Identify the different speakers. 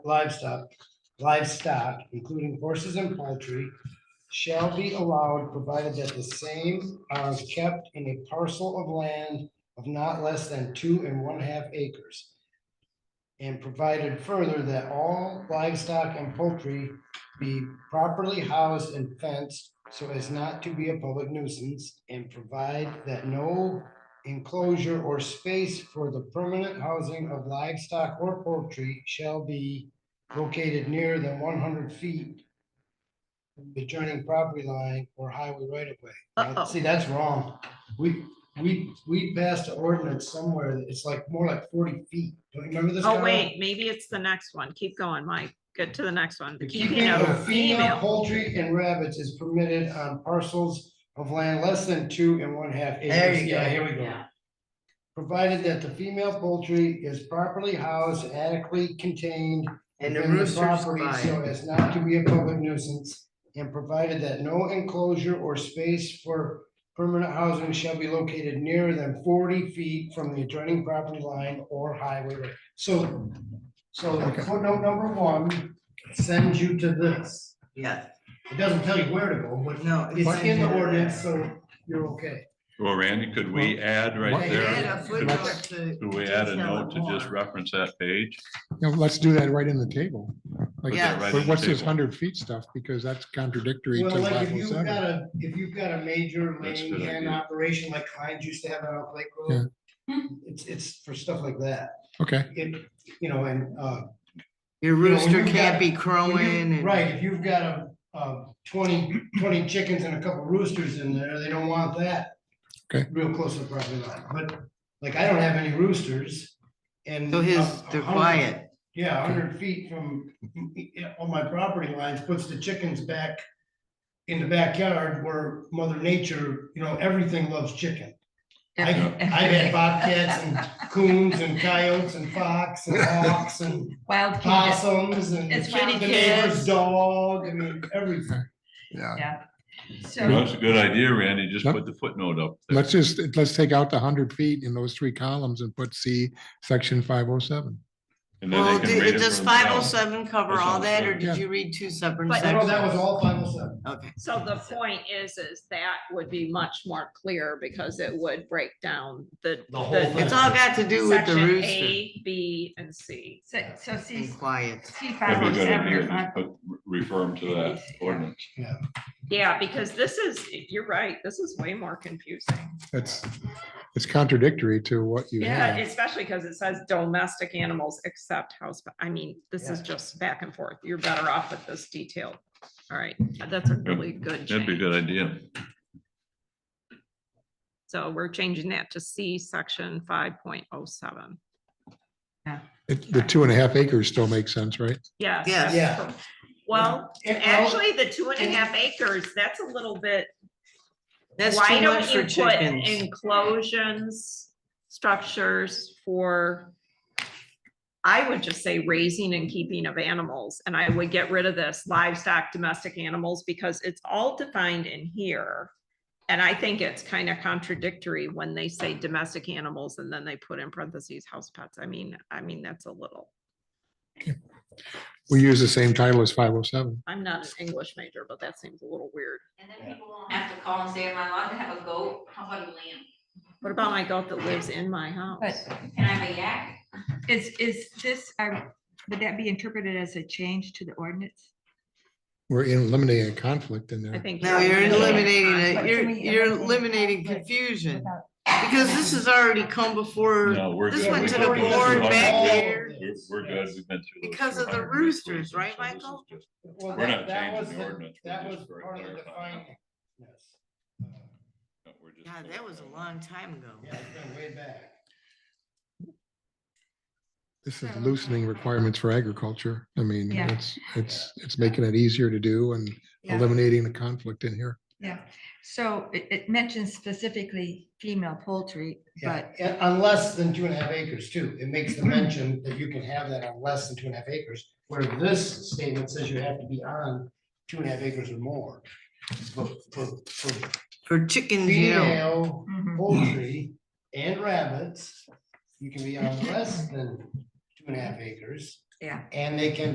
Speaker 1: livestock, livestock, including horses and poultry, shall be allowed provided that the same are kept in a parcel of land of not less than two and one-half acres. And provided further that all livestock and poultry be properly housed and fenced so as not to be a public nuisance and provide that no enclosure or space for the permanent housing of livestock or poultry shall be located nearer than one hundred feet from the adjoining property line or highway right of way. Now,
Speaker 2: Uh-oh.
Speaker 1: See, that's wrong. We, we, we passed an ordinance somewhere, that it's like more like forty feet. Don't you remember this?
Speaker 2: Oh,
Speaker 1: Kyle?
Speaker 2: wait, maybe it's the next one. Keep going, Mike. Get to the next one.
Speaker 1: The
Speaker 2: But
Speaker 1: keeping of female
Speaker 2: female.
Speaker 1: poultry and rabbits is permitted on parcels of land less than two and one half acres.
Speaker 3: There you
Speaker 1: Yeah,
Speaker 3: go.
Speaker 1: here we go. Provided that the female poultry is properly housed, adequately contained.
Speaker 3: And the
Speaker 1: within
Speaker 3: rooster's
Speaker 1: property So
Speaker 3: fine.
Speaker 1: as not to be a public nuisance, and provided that no enclosure or space for permanent housing shall be located nearer than forty feet from the adjoining property line or highway. So, so footnote number one sends you to this.
Speaker 3: Yes,
Speaker 1: It doesn't tell you where to go, but
Speaker 3: no.
Speaker 1: it's in the
Speaker 3: there.
Speaker 1: ordinance, so you're okay.
Speaker 4: Well, Randy, could we add right
Speaker 3: They add
Speaker 4: there?
Speaker 3: a
Speaker 4: could-
Speaker 3: footnote to.
Speaker 4: Could we add a
Speaker 3: detail it
Speaker 4: note to just
Speaker 3: more.
Speaker 4: reference that page?
Speaker 5: No, let's do that right in the table.
Speaker 4: Put
Speaker 5: Like,
Speaker 3: Yeah.
Speaker 4: that right in
Speaker 5: but
Speaker 4: the
Speaker 5: what's this
Speaker 4: table.
Speaker 5: hundred feet stuff? Because that's contradictory to
Speaker 1: Well, like if
Speaker 5: five oh
Speaker 1: you've got
Speaker 5: seven.
Speaker 1: a, if you've got a major
Speaker 4: That's a
Speaker 1: laying
Speaker 4: good
Speaker 1: hen
Speaker 4: idea.
Speaker 1: operation like Heinz used to have out on Lake Road. It's, it's for stuff like that.
Speaker 5: Okay,
Speaker 1: It, you know, and, uh,
Speaker 3: Your
Speaker 1: know, when
Speaker 3: rooster
Speaker 1: you've got-
Speaker 3: can't be
Speaker 1: when you-
Speaker 3: crowing and.
Speaker 1: right, if you've got a, uh, 20 20 chickens and a couple roosters in there, they don't want that.
Speaker 5: Okay.
Speaker 1: Real close to the property line, but like I don't have any roosters and.
Speaker 3: So his,
Speaker 1: a- a
Speaker 3: they're
Speaker 1: hundred-
Speaker 3: quiet.
Speaker 1: Yeah, hundred feet from, yeah, on my property lines, puts the chickens back in the backyard where mother nature, you know, everything loves chicken. I, I've had bobcats and coons and coyotes and fox and hawks and
Speaker 6: Wild cat.
Speaker 1: possums and
Speaker 6: It's
Speaker 1: the
Speaker 6: kitty
Speaker 1: neighbor's
Speaker 6: kids.
Speaker 1: dog, I mean, everything.
Speaker 5: yeah.
Speaker 6: So,
Speaker 4: That's a good idea, Randy. Just
Speaker 5: Yep.
Speaker 4: put the footnote up. there.
Speaker 5: Let's just, let's take out the hundred feet in those three columns and put C, section five oh seven.
Speaker 4: And then
Speaker 3: Well,
Speaker 4: they can read
Speaker 3: did-
Speaker 4: it
Speaker 3: does
Speaker 4: for
Speaker 3: five oh
Speaker 4: themselves.
Speaker 3: seven cover
Speaker 4: That
Speaker 3: all
Speaker 4: sounds
Speaker 3: that, or
Speaker 4: good.
Speaker 3: did
Speaker 5: Yeah.
Speaker 3: you read two separate
Speaker 2: But-
Speaker 1: I know
Speaker 3: sections?
Speaker 1: that was all five oh seven.
Speaker 3: Okay,
Speaker 2: So the point is, is that would be much more clear because it would break down the.
Speaker 1: The whole thing.
Speaker 3: it's all got to do with the
Speaker 2: section
Speaker 3: rooster
Speaker 2: A, B, and C.
Speaker 6: so, so C,
Speaker 3: and quiet.
Speaker 6: C five
Speaker 4: That'd be
Speaker 6: oh
Speaker 4: a good
Speaker 6: seven
Speaker 4: idea.
Speaker 6: or five.
Speaker 4: Just put, refer 'em to that ordinance.
Speaker 2: Yeah, because this is, you're right, this is way more confusing.
Speaker 5: That's, it's contradictory to what you
Speaker 2: Yeah,
Speaker 5: have.
Speaker 2: especially because it says domestic animals except house, I mean, this is
Speaker 1: Yeah.
Speaker 2: just back and forth. You're better off with this detail. All right, that's a really good
Speaker 4: That'd be a
Speaker 2: change.
Speaker 4: good idea.
Speaker 2: So we're changing that to C, section five point oh seven.
Speaker 5: It- The two and a half acres still makes sense, right?
Speaker 2: Yes.
Speaker 3: Yes.
Speaker 2: that's cor- Well,
Speaker 1: And I'll-
Speaker 2: actually, the two and a half acres, that's a little bit,
Speaker 3: That's
Speaker 2: why
Speaker 3: too
Speaker 2: don't
Speaker 3: much
Speaker 2: you
Speaker 3: for
Speaker 2: put
Speaker 3: chickens.
Speaker 2: enclosures, structures for I would just say raising and keeping of animals, and I would get rid of this livestock, domestic animals, because it's all defined in here. And I think it's kind of contradictory when they say domestic animals and then they put in parentheses house pets. I mean, I mean, that's a little.
Speaker 5: We use the same title as five oh seven.
Speaker 2: I'm not an English major, but that seems a little weird.
Speaker 7: And then people won't have to call and say, am I allowed to have a goat? How about a lamb?
Speaker 2: What about my goat that lives in my
Speaker 6: But
Speaker 2: house?
Speaker 7: Can I have a yak?
Speaker 6: is, is this, are- would that be interpreted as a change to the ordinance?
Speaker 5: We're eliminating a conflict in
Speaker 2: I
Speaker 5: there.
Speaker 2: think.
Speaker 3: No, you're
Speaker 6: Yeah.
Speaker 3: eliminating it.
Speaker 6: But
Speaker 3: You're,
Speaker 6: to me,
Speaker 3: you're
Speaker 6: everything
Speaker 3: eliminating
Speaker 6: conflict
Speaker 3: confusion,
Speaker 6: without-
Speaker 3: because this has already come before
Speaker 4: No, we're
Speaker 3: This
Speaker 4: good.
Speaker 3: went
Speaker 4: We
Speaker 3: to
Speaker 4: got
Speaker 3: the
Speaker 4: those
Speaker 3: board
Speaker 4: two
Speaker 3: back
Speaker 4: hundred.
Speaker 3: there.
Speaker 4: We're- We're good. We've been through. those
Speaker 3: Because of the
Speaker 4: 200
Speaker 3: roosters, right,
Speaker 4: so this is
Speaker 3: Michael?
Speaker 4: just-
Speaker 1: Well,
Speaker 4: We're
Speaker 1: that-
Speaker 4: not
Speaker 1: that
Speaker 4: changing
Speaker 1: was
Speaker 4: the ordinance, we're
Speaker 1: That
Speaker 4: just
Speaker 1: was
Speaker 4: for
Speaker 1: part of the
Speaker 4: clarifying.
Speaker 1: defining. Yes. Uh,
Speaker 4: no, we're just
Speaker 3: God, that was a
Speaker 4: clarifying.
Speaker 3: long time ago.
Speaker 1: Yeah, it's been way back.
Speaker 5: This is loosening requirements for agriculture. I mean,
Speaker 6: Yeah.
Speaker 5: it's, it's, it's making it easier to do and
Speaker 6: Yeah,
Speaker 5: eliminating the conflict in here.
Speaker 6: yeah. So it, it mentions specifically female poultry,
Speaker 1: Yeah,
Speaker 6: but,
Speaker 1: and on less than two and a half acres too. It makes the mention that you can have that on less than two and a half acres, where this statement says you have to be on two and a half acres or more. For, for- for
Speaker 3: For chickens, you
Speaker 1: female
Speaker 3: know,
Speaker 6: Mhm.
Speaker 1: poultry and rabbits, you can be on less than two and a half acres,
Speaker 6: yeah.
Speaker 1: and they can